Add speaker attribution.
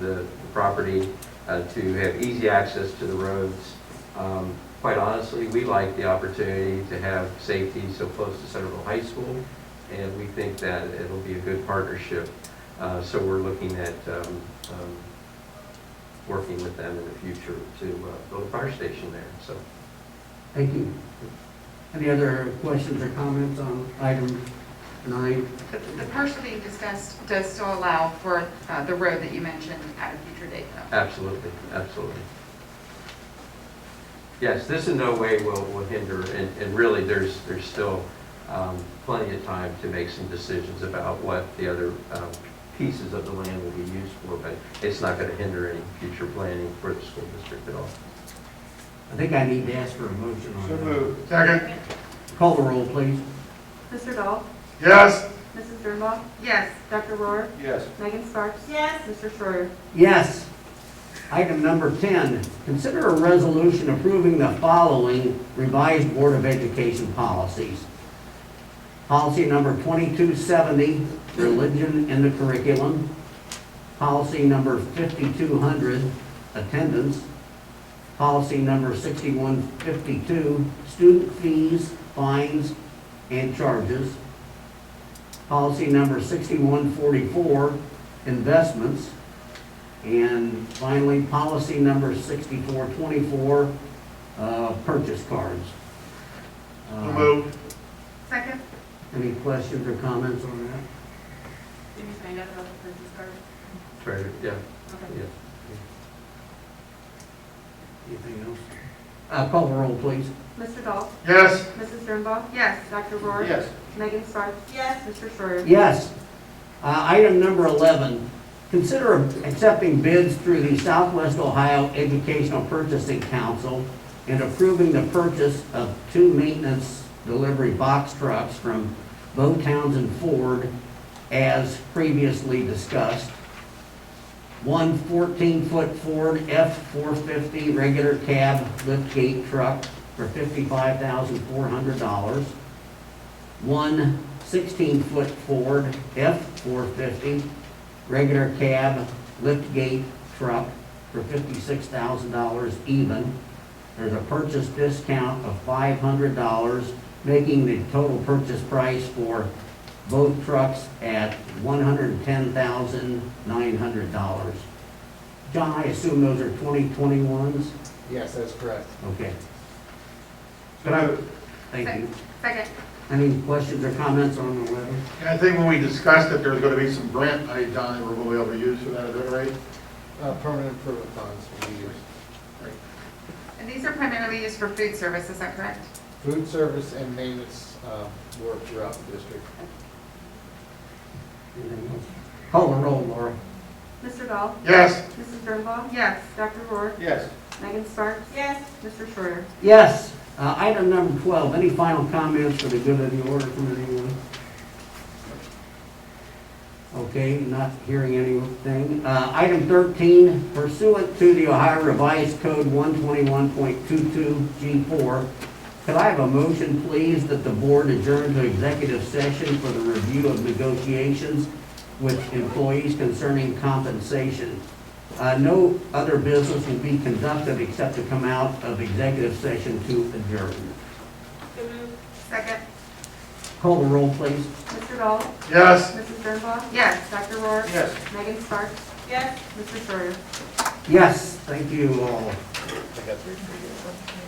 Speaker 1: the the property, uh, to have easy access to the roads. Um, Quite honestly, we like the opportunity to have safety so close to Centerville High School, and we think that it'll be a good partnership. Uh, So we're looking at um, um, working with them in the future to uh, build a fire station there, so.
Speaker 2: Thank you. Any other questions or comments on item nine?
Speaker 3: The the parcel that you discussed does still allow for uh, the road that you mentioned at a future date, though.
Speaker 1: Absolutely, absolutely. Yes, this in no way will, will hinder, and, and really, there's, there's still um, plenty of time to make some decisions about what the other um, pieces of the land will be used for, but it's not going to hinder any future planning for the school district at all.
Speaker 2: I think I need to ask for a motion on
Speaker 4: So
Speaker 2: that.
Speaker 4: moved. Second.
Speaker 2: Call the roll, please.
Speaker 5: Mr. Dahl?
Speaker 4: Yes.
Speaker 5: Mrs. Dernbach?
Speaker 3: Yes,
Speaker 5: Dr. Rohr?
Speaker 4: Yes.
Speaker 5: Megan Sparks? Yes. Mr. Schreier?
Speaker 2: Yes. Item number 10, consider a resolution approving the following revised Board of Education policies. Policy number 2270, religion in the curriculum. Policy number 5200, attendance. Policy number 6152, student fees, fines, and charges. Policy number 6144, investments. And finally, policy number 6424, uh, purchase cards.
Speaker 4: So
Speaker 2: Uh,
Speaker 4: moved.
Speaker 3: second?
Speaker 2: Any questions or comments on that?
Speaker 3: Did you find out about the business card?
Speaker 1: Treasurer, yeah, yeah.
Speaker 2: Anything else? Uh, Call the roll, please.
Speaker 5: Mr. Dahl?
Speaker 4: Yes.
Speaker 5: Mrs. Dernbach?
Speaker 3: Yes,
Speaker 5: Dr. Rohr? Megan Sparks? Yes. Mr. Schreier?
Speaker 2: Yes. Uh, Item number 11, consider accepting bids through the Southwest Ohio Educational Purchasing Council and approving the purchase of two maintenance delivery box trucks from Bo Townsend Ford as previously discussed. One 14-foot Ford F-450 regular cab liftgate truck for $55,400 one 16-foot Ford F-450 regular cab liftgate truck for $56,000 even. There's a purchase discount of $500, making the total purchase price for both trucks at $110,900. John, I assume those are 2021s?
Speaker 6: Yes, that's correct.
Speaker 2: Okay,
Speaker 4: So moved.
Speaker 2: thank you.
Speaker 3: second,
Speaker 2: Any questions or comments on the letter?
Speaker 4: And I think when we discussed that there's going to be some grant money, Don, that we're going to be able to use for that, is that right?
Speaker 6: Uh, Permanent improvement funds will be used.
Speaker 3: and these are primarily used for food service, is that correct?
Speaker 6: Food service and maintenance uh, work throughout the district.
Speaker 2: Anything else? Call the roll, Laura.
Speaker 5: Mr. Dahl?
Speaker 4: Yes.
Speaker 5: Mrs. Dernbach?
Speaker 3: Yes,
Speaker 5: Dr. Rohr?
Speaker 4: Yes.
Speaker 5: Megan Sparks? Yes. Mr. Schreier?
Speaker 2: Yes. Uh, Item number 12, any final comments for the good of the order from anyone? Okay, not hearing anything. Uh, Item 13, pursuant to the Ohio Revised Code 121.22G4, could I have a motion, please, that the board adjourn to executive session for the review of negotiations with employees concerning compensation? Uh, No other business will be conducted except to come out of executive session to adjourn.
Speaker 3: second?
Speaker 2: Call the roll, please.
Speaker 5: Mr. Dahl?
Speaker 4: Yes.
Speaker 5: Mrs. Dernbach?
Speaker 3: Yes.
Speaker 5: Dr. Rohr?
Speaker 4: Yes.
Speaker 5: Megan Sparks? Yes. Mr. Schreier?
Speaker 2: Yes, thank you all.
Speaker 6: I got three for you.